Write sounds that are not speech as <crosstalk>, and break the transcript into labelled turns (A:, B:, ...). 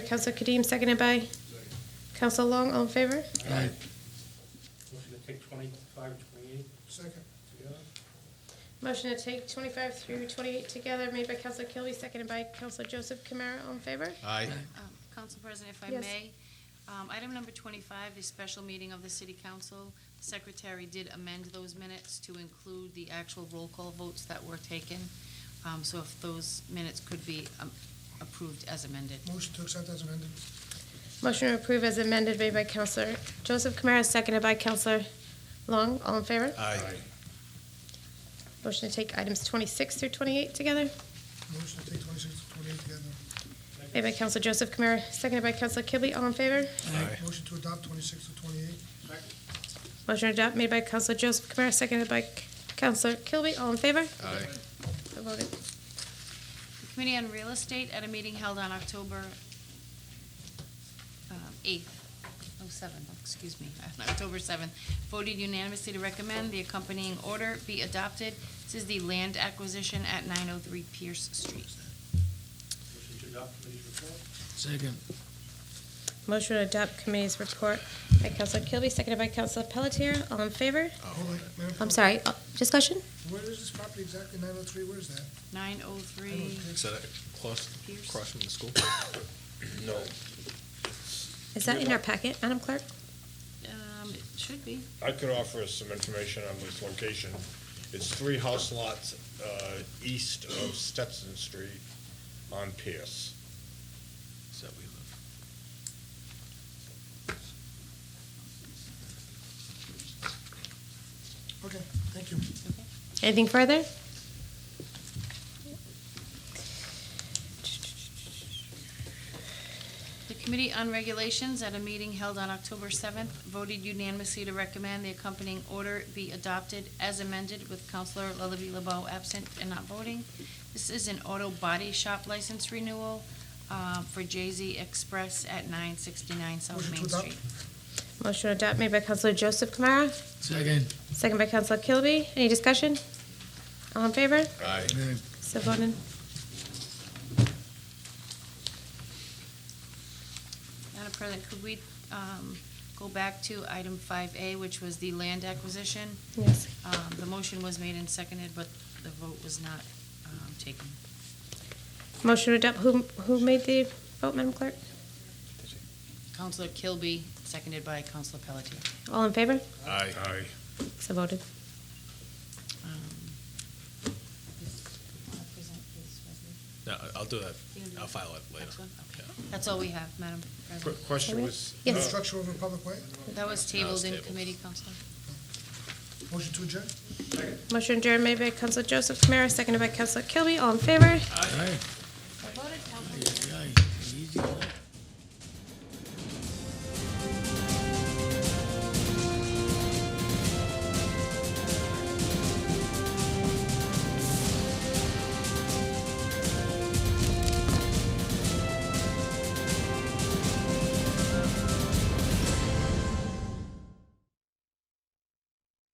A: Council Kadeem, seconded by Council Long, all in favor?
B: Motion to take twenty-five and twenty-eight
C: Second.
B: together?
A: Motion to take 25 through 28 together, made by Council Kilby, seconded by Council Joseph Kamara, all in favor?
D: Aye.
E: Um, Council President, if I
A: Yes.
E: may, um, item number twenty-five, the special meeting of the city council. The Secretary did amend those minutes to include the actual roll call votes that were taken. Um, So if those minutes could be um, approved as amended.
C: Motion to accept as amended.
A: Motion to approve as amended, made by Councilor Joseph Kamara, seconded by Councilor Long, all in favor?
D: Aye.
A: Motion to take items 26 through 28 together,
C: Motion to take twenty-six to twenty-eight together.
A: made by Council Joseph Kamara, seconded by Council Kilby, all in favor?
D: Aye.
C: Motion to adopt twenty-six to twenty-eight.
A: Motion to adopt, made by Council Joseph Kamara, seconded by Councilor Kilby, all in favor?
D: Aye.
A: So voted.
E: The Committee on Real Estate, at a meeting held on October um, 8th, oh, 7, excuse me, <laughs> on October 7th, voted unanimously to recommend the accompanying order be adopted. This is the land acquisition at 903 Pierce Street.
B: Motion to adopt committee's report?
F: Second.
A: Motion to adopt committee's report by Councilor Kilby, seconded by Councilor Pelletier. All in favor?
C: Hold on, Madam
A: I'm
C: Clerk.
A: sorry, uh, discussion?
C: Where is this property exactly? Nine oh three, where is that?
E: 903
D: Is that across,
E: Pierce.
D: across from the school? No.
A: Is that in our packet, Madam Clerk?
E: Um, it should be.
G: I could offer us some information on this location. It's three house lots uh, east of Stetson Street on Pierce.
D: Is that we live?
C: Okay, thank you.
A: Anything further?
E: The Committee on Regulations, at a meeting held on October 7th, voted unanimously to recommend the accompanying order be adopted as amended with Counselor Lillaby LeBeau absent and not voting. This is an auto body shop license renewal uh, for Jay-Z Express at 969 South
C: Motion to
E: Main
C: adopt.
E: Street.
A: Motion to adopt made by Councilor Joseph Kamara,
F: Second.
A: seconded by Councilor Kilby. Any discussion? All in favor?
D: Aye.
F: Aye.
A: So voted.
E: Madam President, could we um, go back to item 5A, which was the land acquisition?
A: Yes.
E: Um, The motion was made and seconded, but the vote was not um, taken.
A: Motion to adopt, who, who made the vote, Madam Clerk?
E: Counselor Kilby, seconded by Counselor Pelletier.
A: All in favor?
D: Aye.
G: Aye.
A: So voted.
E: Um, is- wanna present his resolution?
D: No, I- I'll do that. I'll file it later.
E: Next one? Okay.
D: Yeah.
E: That's all we have, Madam
G: Qu-
E: President.
G: Question was,
A: Yes.
C: Structure over public way.
E: That was tabled in
D: tabled.
E: committee, Counselor.
C: Motion to adjourn.
A: Motion adjourned made by Councilor Joseph Kamara, seconded by Councilor Kilby. All in favor?
F: Aye.